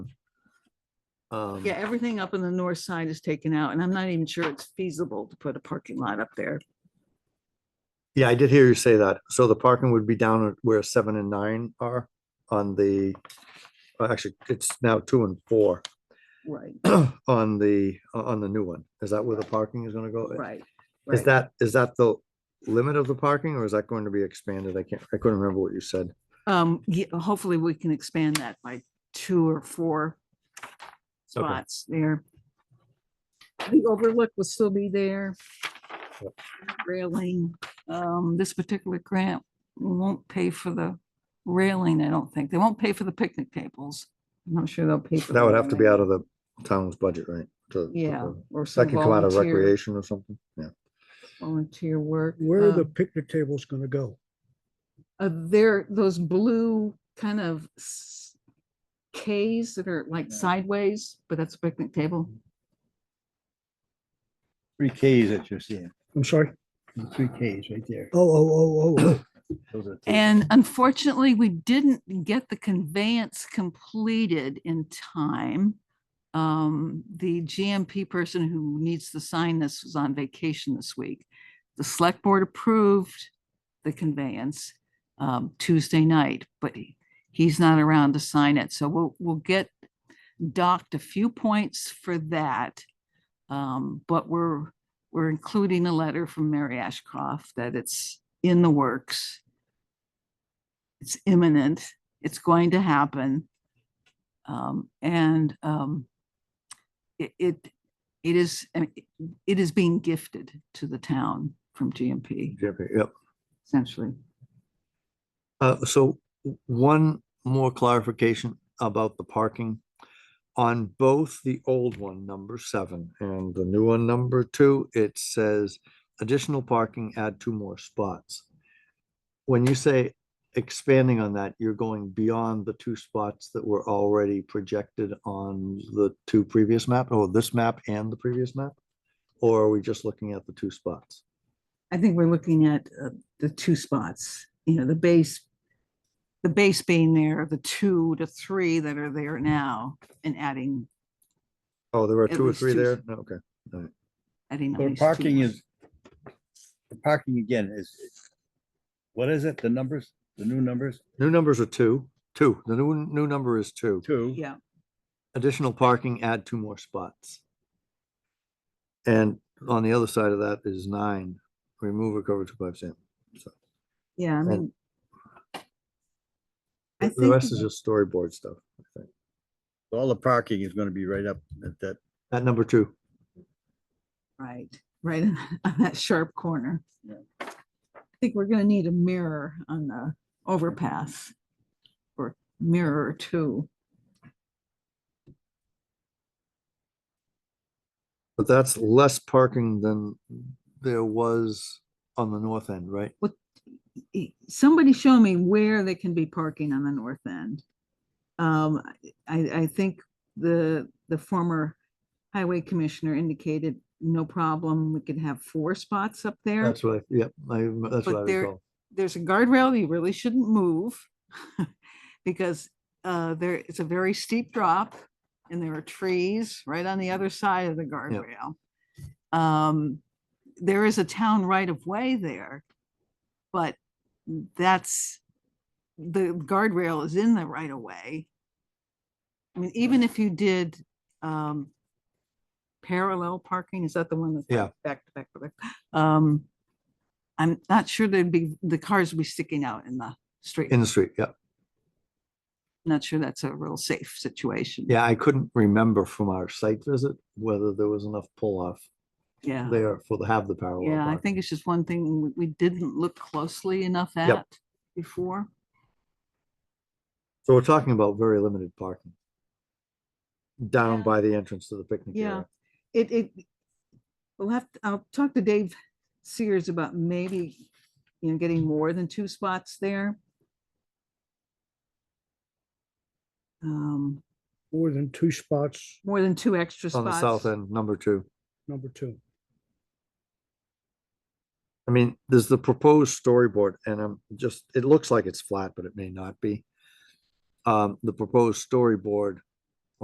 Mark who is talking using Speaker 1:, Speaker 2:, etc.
Speaker 1: Um,
Speaker 2: Yeah, everything up on the north side is taken out and I'm not even sure it's feasible to put a parking lot up there.
Speaker 1: Yeah, I did hear you say that. So the parking would be down at where seven and nine are on the, uh, actually, it's now two and four
Speaker 2: Right,
Speaker 1: on the, uh, on the new one. Is that where the parking is gonna go?
Speaker 2: right.
Speaker 1: Is
Speaker 2: right.
Speaker 1: that, is that the limit of the parking or is that going to be expanded? I can't, I couldn't remember what you said.
Speaker 2: Um, ye- hopefully we can expand that by two or four spots there. The overlook will still be there.
Speaker 1: Yep.
Speaker 2: Railing, um, this particular grant won't pay for the railing, I don't think. They won't pay for the picnic tables. I'm not sure they'll pay. for
Speaker 1: That
Speaker 2: the
Speaker 1: would have to be
Speaker 2: railing.
Speaker 1: out of the town's budget, right? To- to-
Speaker 2: Yeah, or
Speaker 1: That
Speaker 2: some
Speaker 1: can come out of
Speaker 2: volunteer-
Speaker 1: recreation or something? Yeah.
Speaker 2: Volunteer work.
Speaker 3: Where are
Speaker 2: Uh,
Speaker 3: the picnic tables gonna go?
Speaker 2: uh, there, those blue kind of s- Ks that are like sideways, but that's a picnic table.
Speaker 4: Three Ks that you're seeing,
Speaker 3: I'm sorry.
Speaker 4: the three Ks right there.
Speaker 3: Oh, oh, oh, oh, oh.
Speaker 4: Those are the three.
Speaker 2: And unfortunately, we didn't get the conveyance completed in time. Um, the GMP person who needs to sign this was on vacation this week. The select board approved the conveyance um, Tuesday night, but he- he's not around to sign it. So we'll, we'll get docked a few points for that. Um, but we're, we're including a letter from Mary Ashcroft that it's in the works it's imminent, it's going to happen. Um, and, um, it, it, it is, I mean, it- it is being gifted to the town from GMP
Speaker 1: Yep.
Speaker 2: essentially.
Speaker 1: Uh, so w- one more clarification about the parking. On both the old one, number seven, and the new one, number two, it says additional parking, add two more spots. When you say expanding on that, you're going beyond the two spots that were already projected on the two previous map, or this map and the previous map? Or are we just looking at the two spots?
Speaker 2: I think we're looking at, uh, the two spots, you know, the base, the base being there, the two to three that are there now and adding,
Speaker 1: Oh, there are
Speaker 2: At
Speaker 1: two or
Speaker 2: least
Speaker 1: three
Speaker 2: two.
Speaker 1: there? No, Okay.
Speaker 2: adding. at
Speaker 4: The
Speaker 2: least two
Speaker 4: parking
Speaker 2: more.
Speaker 4: is, the parking again is, what is it, the numbers, the new numbers?
Speaker 1: New numbers are two, two. The new, new number is two.
Speaker 4: Two.
Speaker 2: Yeah,
Speaker 1: Additional parking, add two more spots. And on the other side of that is nine, remove or cover two five percent.
Speaker 2: yeah, I
Speaker 1: And-
Speaker 2: mean. I
Speaker 1: The
Speaker 2: think,
Speaker 1: rest is just storyboard stuff. I think.
Speaker 4: All the parking is gonna be right up at that,
Speaker 1: At number two,
Speaker 2: right, right in- on that sharp corner.
Speaker 4: Yeah.
Speaker 2: I think we're gonna need a mirror on the overpass. Or mirror or two.
Speaker 1: but that's less parking than there was on the north end, right?
Speaker 2: E- Somebody show me where they can be parking on the north end. Um, I, I think the, the former highway commissioner indicated no problem, we could have four spots up there.
Speaker 1: That's right. Yep, I, rem- that's
Speaker 2: But
Speaker 1: what I
Speaker 2: there-
Speaker 1: recall.
Speaker 2: there's a guardrail you really shouldn't move because uh, there, it's a very steep drop and there are trees right on the other side of the guardrail. Um, There is a town right of way there, but that's, the guardrail is in the right of way. I mean, even if you did um, parallel parking, is that the one that's
Speaker 1: Yeah.
Speaker 2: like back to back to back? Um, I'm not sure there'd be, the cars would be sticking out in the street.
Speaker 1: In the street, yeah.
Speaker 2: Not sure that's a real safe situation.
Speaker 1: Yeah, I couldn't remember from our site visit whether there was enough pull off
Speaker 2: Yeah.
Speaker 1: there for the, have the parallel.
Speaker 2: Yeah, I
Speaker 1: parking.
Speaker 2: think it's just one thing we, we didn't look closely enough
Speaker 1: Yep.
Speaker 2: at before.
Speaker 1: So we're talking about very limited parking. Down
Speaker 2: Yeah.
Speaker 1: by the entrance to the picnic
Speaker 2: Yeah,
Speaker 1: area.
Speaker 2: it, it, we'll have, to- I'll talk to Dave Sears about maybe, you know, getting more than two spots there. Um,
Speaker 3: More than two spots,
Speaker 2: more than two extra
Speaker 1: On
Speaker 2: spots.
Speaker 1: the south end, number two.
Speaker 3: number two.
Speaker 1: I mean, there's the proposed storyboard and I'm just, it looks like it's flat, but it may not be. Um, the proposed storyboard